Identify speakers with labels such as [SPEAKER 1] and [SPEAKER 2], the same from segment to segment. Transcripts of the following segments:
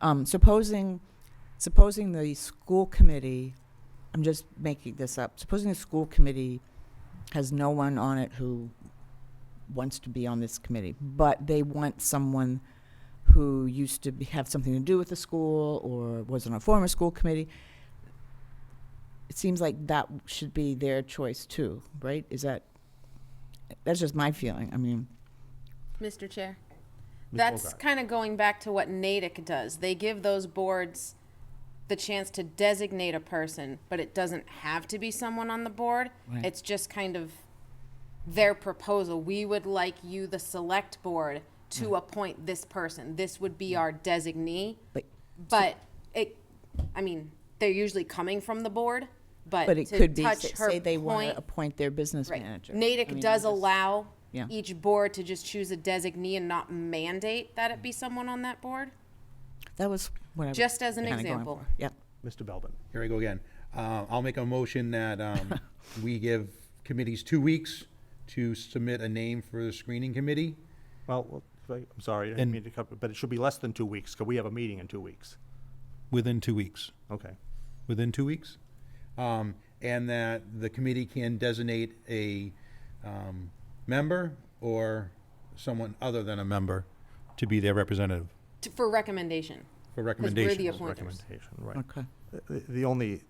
[SPEAKER 1] Um, supposing, supposing the school committee, I'm just making this up, supposing the school committee has no one on it who wants to be on this committee, but they want someone who used to be- have something to do with the school or was on a former school committee, it seems like that should be their choice too, right? Is that, that's just my feeling. I mean,
[SPEAKER 2] Mr. Chair.
[SPEAKER 3] Ms.
[SPEAKER 2] That's
[SPEAKER 3] Bogart.
[SPEAKER 2] kind of going back to what Natick does. They give those boards the chance to designate a person, but it doesn't have to be someone on the board.
[SPEAKER 1] Right.
[SPEAKER 2] It's just kind of their proposal. We would like you, the select board, to appoint this person. This would be our designee.
[SPEAKER 1] but,
[SPEAKER 2] But it, I mean, they're usually coming from the board, but
[SPEAKER 1] but it
[SPEAKER 2] to
[SPEAKER 1] could be,
[SPEAKER 2] touch
[SPEAKER 1] say
[SPEAKER 2] her
[SPEAKER 1] say they want
[SPEAKER 2] point-
[SPEAKER 1] to appoint their business
[SPEAKER 2] Right.
[SPEAKER 1] manager. I
[SPEAKER 2] Natick
[SPEAKER 1] mean,
[SPEAKER 2] does
[SPEAKER 1] I'm just-
[SPEAKER 2] allow
[SPEAKER 1] Yeah.
[SPEAKER 2] each board to just choose a designee and not mandate that it be someone on that board,
[SPEAKER 1] That was what I was
[SPEAKER 2] just as an
[SPEAKER 1] kinda going
[SPEAKER 2] example.
[SPEAKER 1] for. Yep.
[SPEAKER 3] Mr. Belbin.
[SPEAKER 4] Here I go again. Uh, I'll make a motion that um, we give committees two weeks to submit a name for the screening committee.
[SPEAKER 3] Well, well, if I- I'm sorry, I didn't mean to cut, but it should be less than two weeks, because we have a meeting in two weeks.
[SPEAKER 4] Within two weeks.
[SPEAKER 3] Okay.
[SPEAKER 4] Within two weeks? Um, And that the committee can designate a um, member or someone other than a member to be their representative
[SPEAKER 2] T- For recommendation.
[SPEAKER 4] for
[SPEAKER 2] 'cause we're the
[SPEAKER 4] recommendations.
[SPEAKER 2] appointers.
[SPEAKER 3] Recommendation, right.
[SPEAKER 1] Okay.
[SPEAKER 3] The- The only,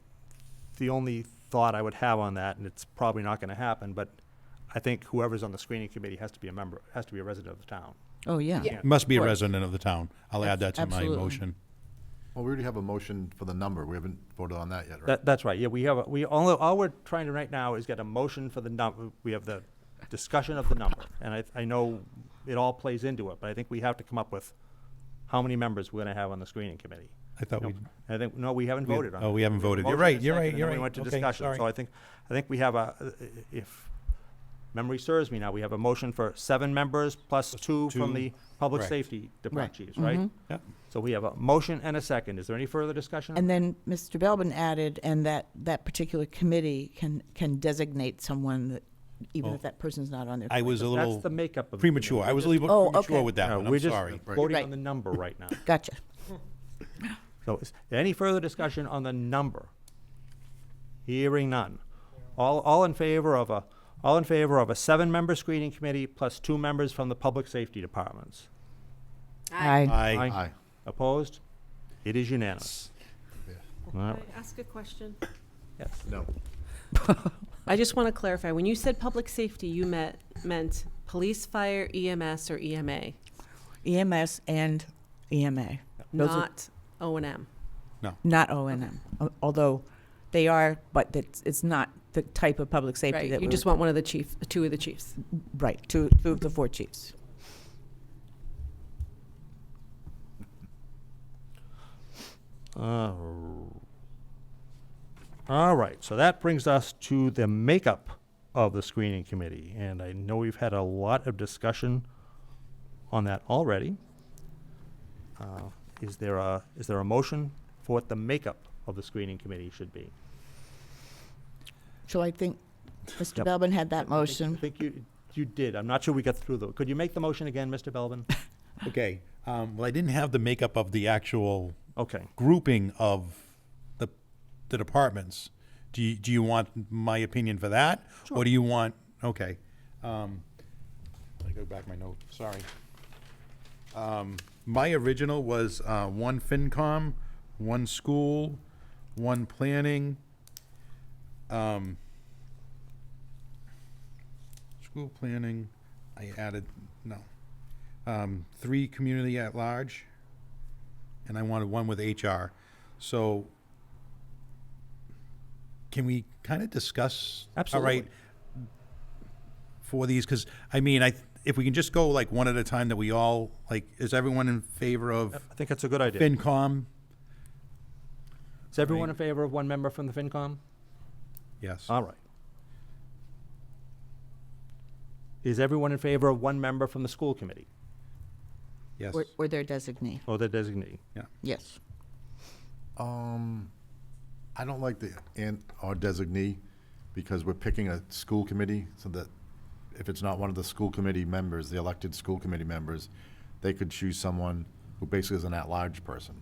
[SPEAKER 3] the only thought I would have on that, and it's probably not going to happen, but I think whoever's on the screening committee has to be a member, has to be a resident of the town.
[SPEAKER 1] Oh, yeah.
[SPEAKER 2] Yeah.
[SPEAKER 4] Must be a
[SPEAKER 1] Right.
[SPEAKER 4] resident of the town. I'll add that to my
[SPEAKER 1] Absolutely.
[SPEAKER 4] motion.
[SPEAKER 5] Well, we already have a motion for the number. We haven't voted on that yet, right?
[SPEAKER 3] That, that's right, yeah, we have, a- we, all, all we're trying to right now is get a motion for the num, we have the discussion of the number. And I, I know it all plays into it, but I think we have to come up with how many members we're gonna have on the screening committee.
[SPEAKER 4] I thought
[SPEAKER 3] No,
[SPEAKER 4] we,
[SPEAKER 3] I think, no, we haven't voted on it.
[SPEAKER 4] oh, we haven't
[SPEAKER 3] have a
[SPEAKER 4] voted. You're
[SPEAKER 3] motion
[SPEAKER 4] right,
[SPEAKER 3] and a
[SPEAKER 4] you're
[SPEAKER 3] second,
[SPEAKER 4] right,
[SPEAKER 3] and
[SPEAKER 4] you're
[SPEAKER 3] then we
[SPEAKER 4] right.
[SPEAKER 3] went to
[SPEAKER 4] Okay,
[SPEAKER 3] discussion. So
[SPEAKER 4] sorry.
[SPEAKER 3] I think, I think we have a, uh, if memory serves me now, we have a motion for seven members plus two from
[SPEAKER 4] two,
[SPEAKER 3] the public
[SPEAKER 4] correct.
[SPEAKER 3] safety
[SPEAKER 1] Right. Mm-hmm.
[SPEAKER 3] department chiefs, right?
[SPEAKER 4] Yep.
[SPEAKER 3] So we have a motion and a second. Is there any further discussion?
[SPEAKER 1] And then Mr. Belbin added, and that, that particular committee can, can designate someone that, even
[SPEAKER 4] Oh.
[SPEAKER 1] if that person's not on there.
[SPEAKER 4] I was a
[SPEAKER 3] That's
[SPEAKER 4] little
[SPEAKER 3] the makeup of. the committee.
[SPEAKER 4] premature. I was a little
[SPEAKER 1] Oh,
[SPEAKER 4] bit premature
[SPEAKER 1] okay.
[SPEAKER 4] with that
[SPEAKER 3] No,
[SPEAKER 4] one.
[SPEAKER 3] we're
[SPEAKER 4] I'm
[SPEAKER 3] just
[SPEAKER 4] sorry.
[SPEAKER 3] Voting
[SPEAKER 1] Right.
[SPEAKER 3] on the number right now.
[SPEAKER 1] Gotcha.
[SPEAKER 3] So is there any further discussion on the number? Hearing none. All, all in favor of a, all in favor of a seven-member screening committee plus two members from the public safety departments?
[SPEAKER 2] Aye.
[SPEAKER 4] Aye.
[SPEAKER 5] Aye.
[SPEAKER 3] Opposed? It is unanimous. All
[SPEAKER 6] Can
[SPEAKER 3] right,
[SPEAKER 6] I ask a question?
[SPEAKER 3] yes.
[SPEAKER 5] No.
[SPEAKER 6] I just want to clarify, when you said public safety, you met, meant police, fire, EMS, or E EMA,
[SPEAKER 1] EMS E and E EMA, Those are-
[SPEAKER 6] not O and M.
[SPEAKER 1] not O and M, although they are, but it's, it's not the type of public safety
[SPEAKER 6] Right,
[SPEAKER 1] that
[SPEAKER 6] you
[SPEAKER 1] we
[SPEAKER 6] just want one of the chief, two of the chiefs.
[SPEAKER 1] right, two, two of the four chiefs.
[SPEAKER 3] Uh, All right, so that brings us to the makeup of the screening committee, and I know we've had a lot of discussion on that already. Uh, Is there a, is there a motion for what the makeup of the screening committee should be?
[SPEAKER 1] So I think Mr.
[SPEAKER 3] Yep.
[SPEAKER 1] Belbin had that
[SPEAKER 3] I
[SPEAKER 1] motion.
[SPEAKER 3] think you, you did, I'm not sure we got through the, could you make the motion again, Mr. Belvin?
[SPEAKER 4] Okay, um, well, I didn't have the makeup of the actual
[SPEAKER 3] Okay,
[SPEAKER 4] grouping of the, the departments. Do you, do you want my opinion for that? Or do you want, okay. um, Let me go back my note, sorry. Um, My original was uh, one FinCom, one school, one planning. um, School planning, I added, no. um, Three community at large and I wanted one with HR. So can we kind of discuss?
[SPEAKER 3] Absolutely.
[SPEAKER 4] All right. For these, because I mean, I, if we can just go like one at a time that we all, like, is everyone in favor of
[SPEAKER 3] I think that's a good idea.
[SPEAKER 4] FinCom?
[SPEAKER 3] Is everyone in favor of one member from the FinCom?
[SPEAKER 4] Yes.
[SPEAKER 3] All right. Is everyone in favor of one member from the school committee
[SPEAKER 4] Yes.
[SPEAKER 1] Or, or their designee,
[SPEAKER 3] or the designee?
[SPEAKER 1] yes.
[SPEAKER 5] Um, I don't like the and or designee because we're picking a school committee so that if it's not one of the school committee members, the elected school committee members, they could choose someone who basically is an at-large person.